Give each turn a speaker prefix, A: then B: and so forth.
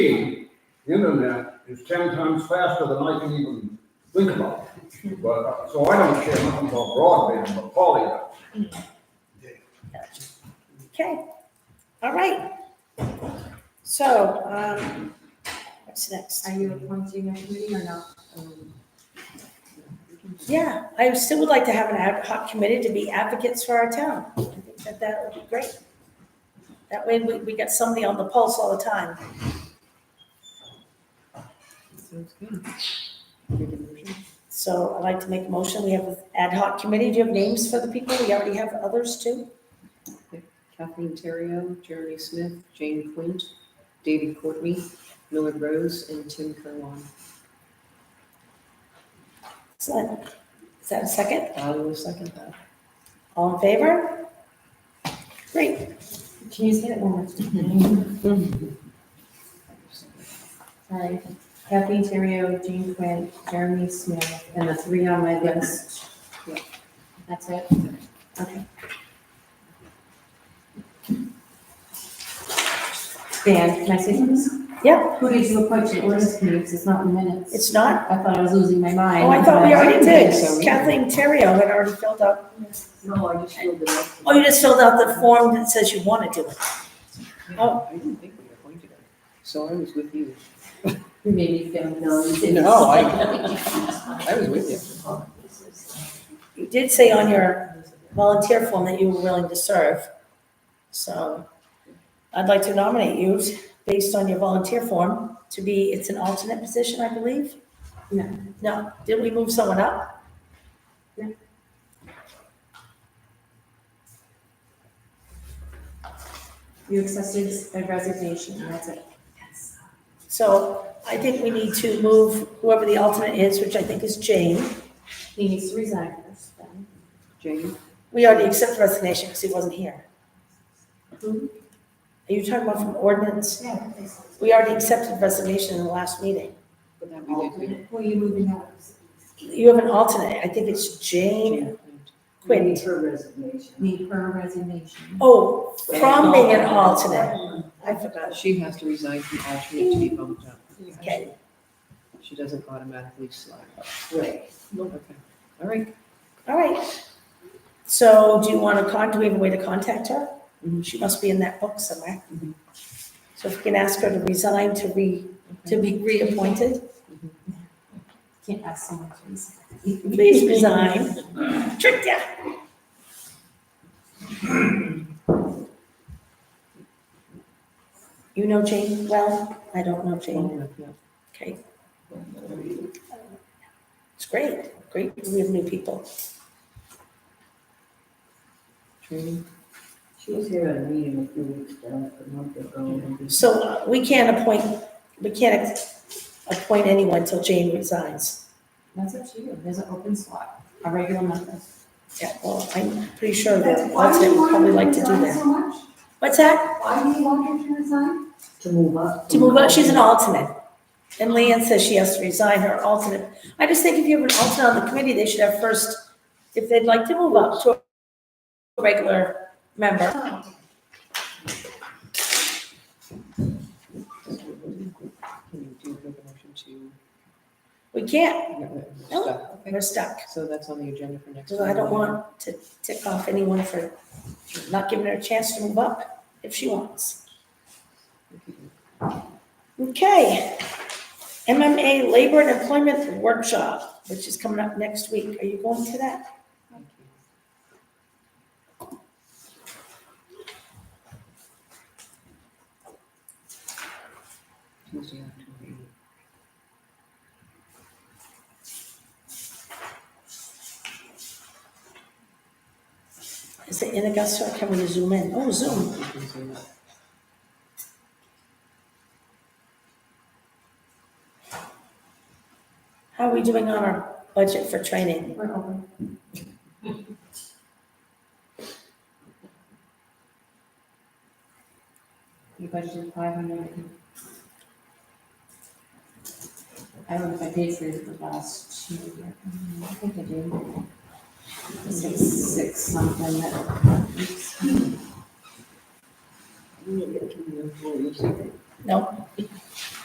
A: The internet is ten times faster than I can even think about. But, uh, so I don't care nothing about broadband, but Polly does.
B: Okay, all right. So, um, what's next?
C: Are you appointing a committee or not?
B: Yeah, I still would like to have an ad hoc committee to be advocates for our town. I think that that would be great. That way we, we get somebody on the pulse all the time.
C: Sounds good. Make a motion.
B: So I'd like to make a motion. We have an ad hoc committee. Do you have names for the people? We already have others too.
C: Kathleen Terrio, Jeremy Smith, Jane Quint, David Courtney, Millard Rose, and Tim Kerwin.
B: Is that, is that a second?
C: I will second that.
B: All in favor? Great.
D: Can you say that one more time? Sorry. Kathleen Terrio, Jean Quinn, Jeremy Smith, and the three on my list.
C: Yeah.
D: That's it? Okay. Dan, can I say something?
B: Yeah.
D: Who did you appoint to the ordinance committee? 'Cause it's not in the minutes.
B: It's not
D: I thought I was losing my mind.
B: Oh, I thought we already did.
C: So we-
B: Kathleen Terrio had already filled out.
C: No, I just filled it up.
B: Oh, you just filled out the form that says you want to do it. oh.
C: I didn't think we appointed her. So I was with you.
D: You made me feel dumb.
C: No, I- I was with you.
B: You did say on your volunteer form that you were willing to serve. So I'd like to nominate you based on your volunteer form to be, it's an alternate position, I believe?
D: No.
B: No, did we move someone up?
D: No. You accepted a resignation, and that's it.
B: So I think we need to move whoever the alternate is, which I think is Jane.
D: He needs to resign first, then.
C: Jane,
B: We already accepted resignation because he wasn't here.
D: Mhm.
B: Are you talking about from ordinance?
D: Yeah.
B: We already accepted resignation in the last meeting.
C: but that we did. we-
D: Who are you moving out?
B: You have an alternate, I think it's Jane
C: Jane Quint.
B: Quinn.
D: Need her resignation.
B: Oh, from being an alternate. I forgot.
C: She has to resign from alternate to be bumped up.
B: Okay.
C: She doesn't automatically slide.
D: Right.
C: Okay, all right.
B: All right. So do you want to con, do we have a way to contact her?
C: Mhm.
B: She must be in that book somewhere.
C: Mhm.
B: So if you can ask her to resign to re, to be reappointed,
D: Can't ask someone to resign.
B: please resign. Tricked ya. You know Jane well? I don't know Jane.
C: Long enough, yeah.
B: Okay. It's great, great, we have new people.
C: Training,
E: She was here at a meeting a few weeks back, a month ago.
B: So uh, we can't appoint, we can't appoint anyone till Jane resigns.
D: That's up to you. There's an open slot, a regular member.
B: Yeah, well, I'm pretty sure that alternate would probably like to do that. What's that?
E: Why do you want her to resign? To move up.
B: To move on, she's an alternate. And Leanne says she has to resign her alternate. I just think if you have an alternate on the committee, they should have first, if they'd like to move up to a regular member.
C: can you do make a motion to?
B: We can't,
C: yeah, we're
B: No.
C: stuck. Okay.
B: we're stuck.
C: So that's on the agenda for next.
B: So I don't
C: Monday.
B: want to tick off anyone for not giving her a chance to move up if she wants. Okay. MMA Labor and Employment Workshop, which is coming up next week. Are you going to that?
C: Tuesday, October eighth.
B: Is it in Augusta or can we zoom in? Oh, Zoom.
C: You can do that.
B: How are we doing on our budget for training?
D: We're open. You budgeted five hundred. I don't know if I paid for it the last two years. I think I did. It's like six something that.
B: No?